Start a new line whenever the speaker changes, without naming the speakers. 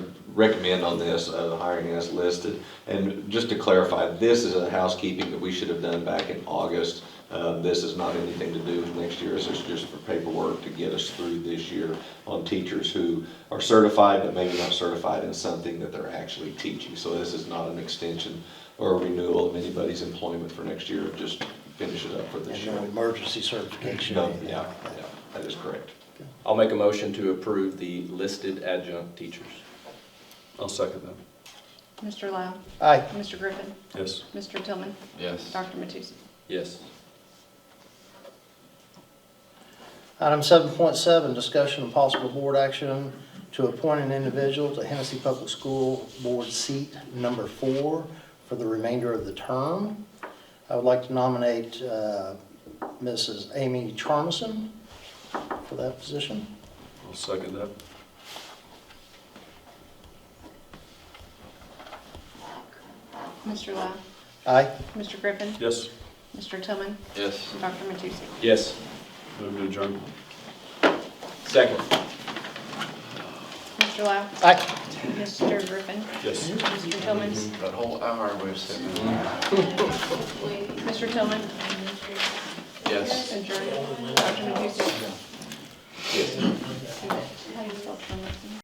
recommend on this, uh, the hiring as listed. And just to clarify, this is a housekeeping that we should have done back in August. Uh, This is not anything to do with next year, this is just for paperwork to get us through this year on teachers who are certified, but maybe not certified in something that they're actually teaching. So this is not an extension or a renewal of anybody's employment for next year, just finish it up for this
And
year.
no emergency certification. or
No,
anything
yeah,
like that.
yeah, that is correct.
I'll make a motion to approve the listed adjunct teachers.
I'll second that.
Mr. Lau.
Aye.
Mr. Griffin.
Yes.
Mr. Tillman.
Yes.
Dr. Matusek.
Yes.
Item seven point seven, discussion and possible board action to appoint an individual to Hennessy Public School Board seat number four for the remainder of the term. I would like to nominate uh, Mrs. Amy Charmison for that position.
I'll second that.
Mr. Lau.
Aye.
Mr. Griffin.
Yes.
Mr. Tillman.
Yes.
Dr. Matusek.
Yes.
Move to adjourn.
Second.
Mr. Lau.
Aye.
Mr. Griffin.
Yes.
Mr. Tillman.
That whole hour we're sitting.
Mr. Tillman.
Yes.
Adjourned. Dr. Matusek. Yes. How do you spell Tillman?